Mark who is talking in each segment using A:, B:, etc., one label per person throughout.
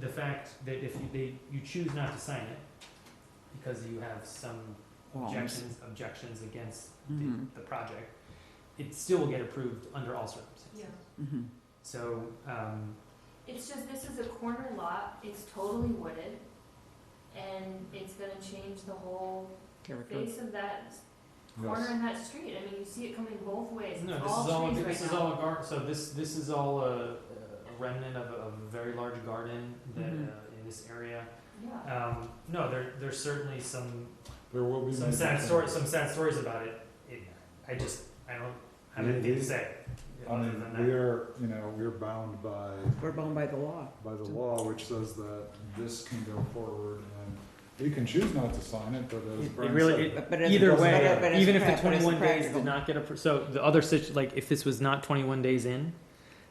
A: the fact that if you, they, you choose not to sign it, because you have some
B: Walls.
A: objections, objections against the,
C: Mm-hmm.
B: Mhm,
A: the project, it still will get approved under all circumstances.
D: Yeah,
B: mhm.
A: So, um,
D: it's just, this is a corner lot, it's totally wooded, and it's gonna change the whole
B: Character.
D: face of that corner in that street, I mean, you see it coming both ways, it's
A: no, this is all,
D: all trees right now.
A: this is all a gar, so this, this is all a, a remnant of, a- of a very large garden that, uh,
C: Mm-hmm.
B: Mhm.
A: in this area.
D: Yeah,
A: Um, no, there, there's certainly some,
C: There will be.
A: some
C: many
A: sad
C: things.
A: stories, some sad stories about it. It, I just, I don't have anything to say.
C: I
A: other than that.
C: mean, we are, you know, we're bound by,
B: We're bound by the law.
C: by the law, which says that this can go forward and we can choose not to sign it, but as
A: It- it
C: Brian
A: really-
C: said,
A: it-
B: But- but it's-
A: Either
B: but-
A: way,
B: but it's
A: even if
B: prac-
A: the
B: but it's
A: twenty-one days
B: practical.
A: did not get approved, so the other situ, like, if this was not twenty-one days in,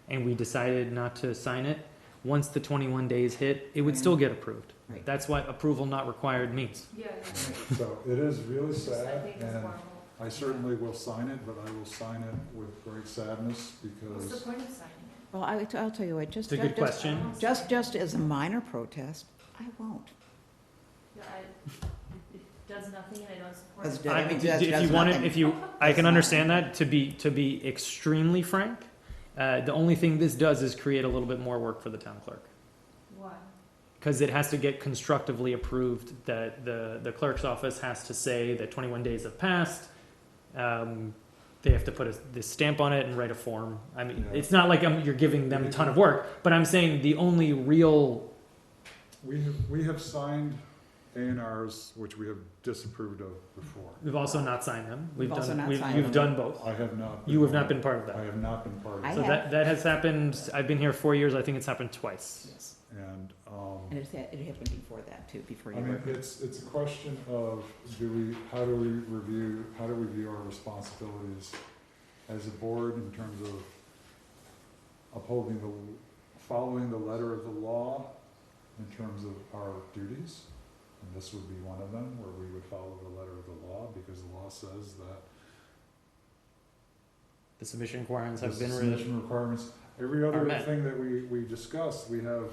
A: and we decided not to sign it, once the twenty-one days hit, it would still get approved.
B: Right.
A: That's what approval not required means.
D: yeah, yeah,
C: So it is really
D: It's just, I
C: sad
D: think it's
C: and
D: horrible.
C: I certainly will sign it, but I will sign it with great sadness
D: What's the
C: because
D: point of signing
B: Well, I, I'll tell you what, just,
A: It's a good
B: just,
D: it? I
A: question.
D: don't
B: just,
D: sign it.
B: just as a minor protest, I won't.
D: Yeah, I- It does nothing and I don't support
B: Does
D: it.
B: Yeah,
A: I-
B: I mean,
A: d-
B: that's-
A: d- If you
B: that's
A: want
B: nothing.
A: it, if you, I can understand that, to be, to be extremely frank, uh, the only thing this does is create a little bit more work for the town clerk.
D: Why?
A: Because it has to get constructively approved, that the, the clerk's office has to say that twenty-one days have passed. Um, they have to put a, this stamp on it and write a form. I mean,
C: Yeah.
A: it's not like i you're giving them a ton of work, but I'm saying the only real,
C: we have, we have signed A and Rs which we have disapproved of before.
A: we've also not signed them. We've
B: We've also
A: done,
B: not
A: we've,
B: signed
A: you've
B: them.
A: done both.
C: I have not.
A: You have not been part of
C: I
A: that.
C: have not been part of
B: I
C: it.
A: So that, that has happened, I've been here four years, I think it's happened twice.
B: Yes.
C: And, um.
B: And it, it happened before that too, before
C: I
B: you
C: mean,
B: were.
C: it's, it's a question of, do we, how do we review, how do we view our responsibilities as a board in terms of upholding the, following the letter of the law in terms of our duties? And this would be one of them, where we would follow the letter of the law, because the law says that
A: The submission requirements have
C: the
A: been re-
C: submission requirements, every other
A: Are met.
C: thing that we, we discuss, we have,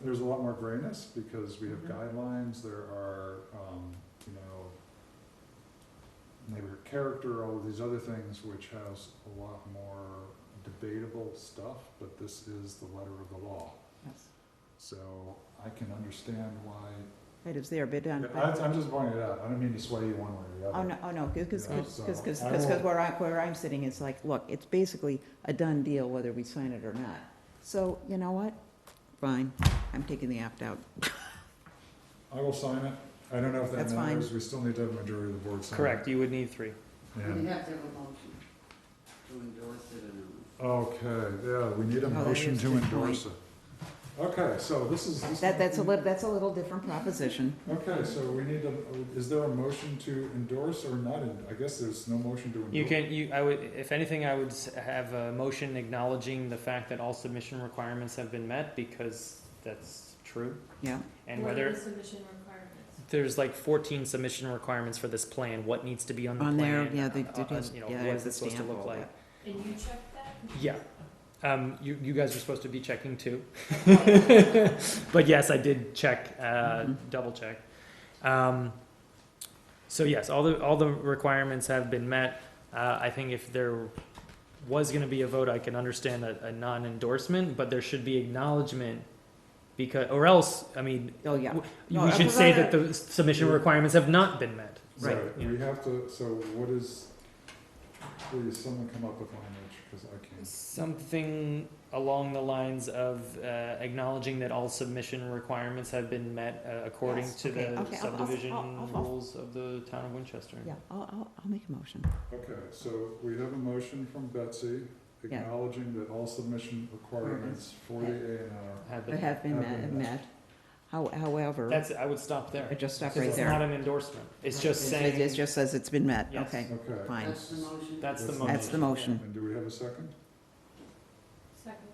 C: there's a lot more grayness, because we have
A: Mhm.
C: guidelines, there are, um, you know, neighbor character, all of these other things, which has a lot more debatable stuff, but this is the letter of the law.
B: Yes.
C: So I can understand why,
B: It is there, but, um,
C: I, I'm just pointing it out, I don't mean to sway you one way or the
B: oh,
C: other.
B: no, oh, no, because,
C: Yeah,
B: because,
C: so
B: because,
C: I
B: because
C: will-
B: where I, where I'm sitting, it's like, look, it's basically a done deal whether we sign it or not. So, you know what? Fine, I'm taking the opt-out.
C: I will sign it, I don't know if that
B: That's fine.
C: matters, we still need to have a majority of the board sign it.
A: Correct, you would need three.
C: Yeah.
E: We have to have a motion to endorse it or not.
C: Okay, yeah, we need a
B: Oh, that
C: motion
B: is a
C: to
B: good
C: endorse it. Okay, so this is. this
B: That,
C: might
B: that's a
C: be-
B: little, that's a little different proposition.
C: Okay, so we need a, is there a motion to endorse or not? en- I guess there's no motion to endorse.
A: You can, you, I would, if anything, I would s- have a motion acknowledging the fact that all submission requirements have been met, because that's true.
B: Yeah.
A: And
D: What are
A: whether,
D: the submission requirements?
A: there's like fourteen submission requirements for this plan, what needs to be on the
B: On
A: plan?
B: there, yeah, they
A: uh,
B: did
A: uh,
B: have-
A: you know,
B: yeah,
A: what
B: they
A: is
B: have
A: it supposed to
B: the
A: look
B: stamp
A: like?
B: all
D: And you check that?
A: Yeah, um, you, you guys are supposed to be checking too. But yes, I did check, uh,
B: Mhm.
A: double check. Um, so yes, all the, all the requirements have been met. Uh, I think if there was gonna be a vote, I can understand a, a non-endorsement, but there should be acknowledgement because, or else, I mean,
B: Oh, yeah. No,
A: we
B: I
A: should
B: was
A: say
B: gonna-
A: that the submission requirements have not been met.
C: So
A: Right, yeah.
C: We have to, so what is, please, someone come up with language, because I can't.
A: Something along the lines of uh, acknowledging that all submission requirements have been met uh, according
B: Yes,
A: to
B: okay,
A: the
B: okay, I'll- I'll- I'll-
A: subdivision
B: I'll-
A: rules of the town of Winchester.
B: Yeah, I'll, I'll, I'll make a motion.
C: Okay, so we have a motion from Betsy
B: Yeah.
C: acknowledging that all submission requirements for the A and R.
A: Have
B: They
A: been-
B: have been
C: Have
B: met,
C: been met.
B: met. How- however.
A: That's, I would stop
B: I
A: there.
B: just stopped
A: It's
B: right
A: not
B: there.
A: an endorsement. It's just
B: It- It
A: saying,
B: just says it's been met,
A: Yes.
B: okay,
C: Okay,
B: fine.
E: That's the motion.
A: that's the motion.
B: That's the motion.
C: and do we have a second?
D: Second.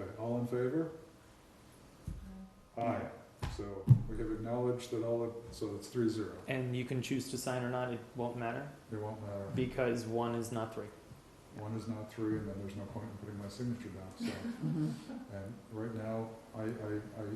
C: Okay, all in favor? Aye, so we have acknowledged that all, of- so it's three zero,
A: And you can choose to sign or not, it won't matter,
C: it won't matter.
A: because one is not three.
C: One is not
B: Mm-hmm.
C: three, and then there's no point in putting my signature down, so.
B: Mhm.
C: And right now, I, I, I